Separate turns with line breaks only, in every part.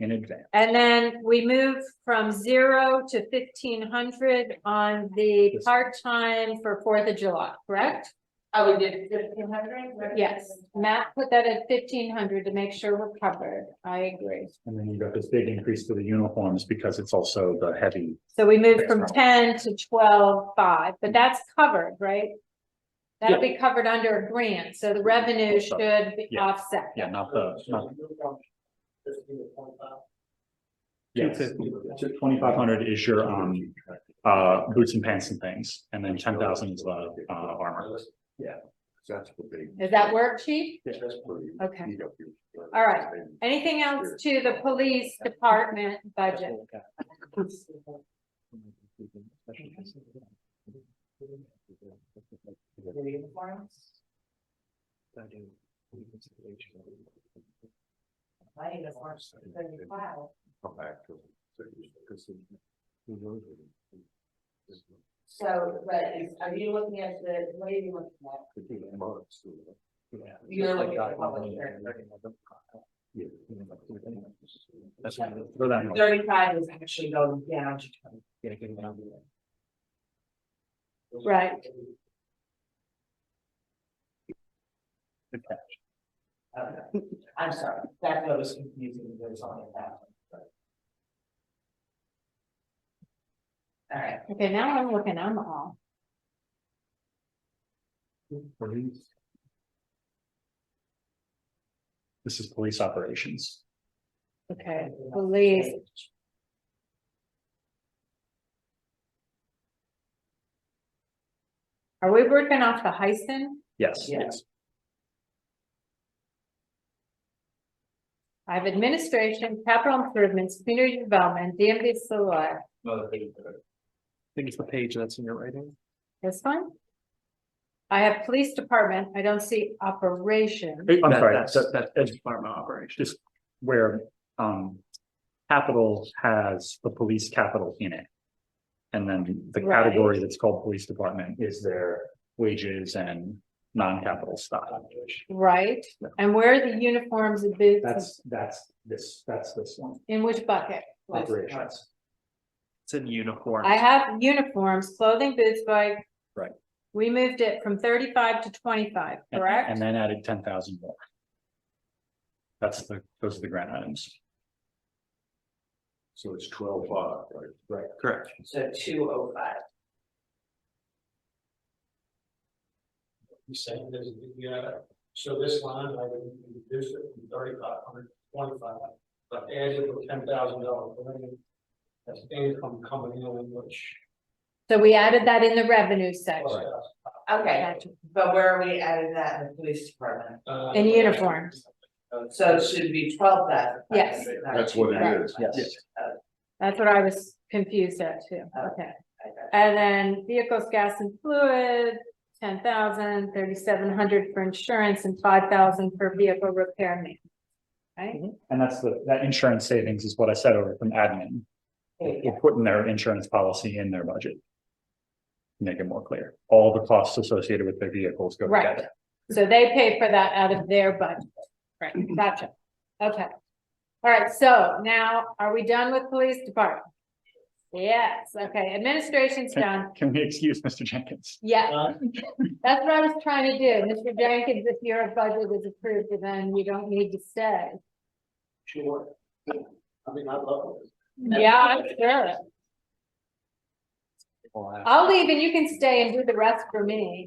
in advance.
And then we move from zero to fifteen hundred on the part-time for Fourth of July, correct?
Oh, we did fifteen hundred?
Yes, Matt put that at fifteen hundred to make sure we're covered. I agree.
And then you got this big increase to the uniforms because it's also the heavy.
So we moved from
That's
ten to twelve five, but that's covered, right? That'll be covered under a grant, so the revenue should be
Yeah.
offset.
Yeah, not the, not, yes, twenty-five hundred is your, um, uh, boots and pants and things, and then ten thousand is, uh, uh, armor.
Yeah. That's the big.
Does that work, chief?
That's pretty.
Okay.
beat up here.
All right. Anything else to the police department budget?
My uniform's thirty-five.
Come back to. because it- who knows what it- it's gonna
So, but is, are you looking at the, what are you looking at?
be in months, so, yeah.
You're looking at the public hearing.
Yeah.
That's why, for that, one.
Thirty-five is actually going down to twenty.
Right.
Okay. I'm sorry, that note was confusing, there's only that. one. All right,
Okay, now I'm looking, I'm all.
Police.
this is police operations.
Okay, police. Are we working off the Heisen?
Yes.
Yeah.
I have administration, capital improvements, community development, DMV select.
think it's the page that's in your writing.
This one? I have police department, I don't see operation.
I'm
That-
sorry,
that's-
that, that,
That's department operation.
just where, um, capital has the police capital in it. And then the
Right.
category that's called police department is their wages and non-capital stuff.
Right, and where are the uniforms and boots,
That's, that's this, that's this one,
in which bucket?
operations.
It's in uniform.
I have uniforms, clothing, boots, bike.
Right.
We moved it from thirty-five to twenty-five,
And-
correct?
And then added ten thousand more. That's the, those are the grant items.
So it's twelve five, right? Right.
Correct.
so two oh five.
You saying there's, you gotta show this line, I would reduce it from thirty-five hundred to twenty-five, but add it with ten thousand dollars. That's income coming in, which.
So we added that in the revenue section.
Uh,
Okay,
Gotcha.
but where are we adding that in the police department?
uh,
In uniforms.
So it should be twelve thousand.
Yes.
That's what it is.
Yes.
That's what I was confused at too, okay.
I got it.
And then vehicles, gas and fluid, ten thousand, thirty-seven hundred for insurance and five thousand for vehicle repair and maintenance. Right,
And that's the, that insurance savings is what I said over from admin. We're putting their insurance policy in their budget. Make it more clear. All the costs associated with their vehicles go
Right.
together.
so they pay for that out of their budget, right, gotcha, okay. All right, so now, are we done with police department? Yes, okay, administration's done,
Can we excuse Mr. Jenkins?
yeah,
Uh,
that's what I was trying to do, Mr. Jenkins, if your budget was approved, then you don't need to stay.
Sure. I mean, I love it.
Yeah, I'm sure. I'll leave and you can stay and do the rest for me.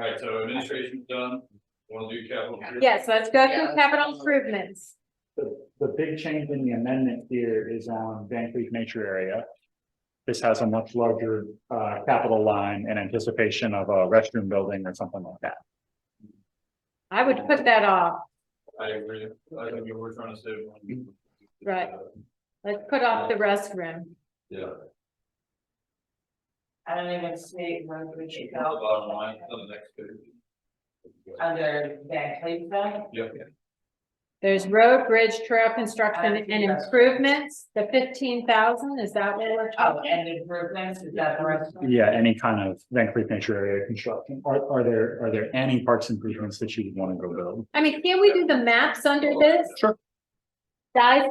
Alright, so administration's done, wanna do capital?
Yes, let's go
Yeah.
through capital improvements.
The, the big change in the amendment here is on Van Cleef Nature Area. This has a much larger, uh, capital line in anticipation of a restroom building or something like that.
I would put that off.
I agree, I think we were trying to save money.
Right. Let's put off the restroom.
Yeah,
I don't even see where we should
the
go
bottom line, it's on the next page.
Uh,
under Van Cleef then.
Yep,
There's road, bridge, trail construction and improvements, the fifteen thousand, is that what we're
Oh,
talking?
and improvements, is that the rest? of it?
Yeah, any kind of Van Cleef Nature Area construction. Are, are there, are there any parks improvements that you would want to go build?
I mean, can we do the maps under this?
Sure.
Guys,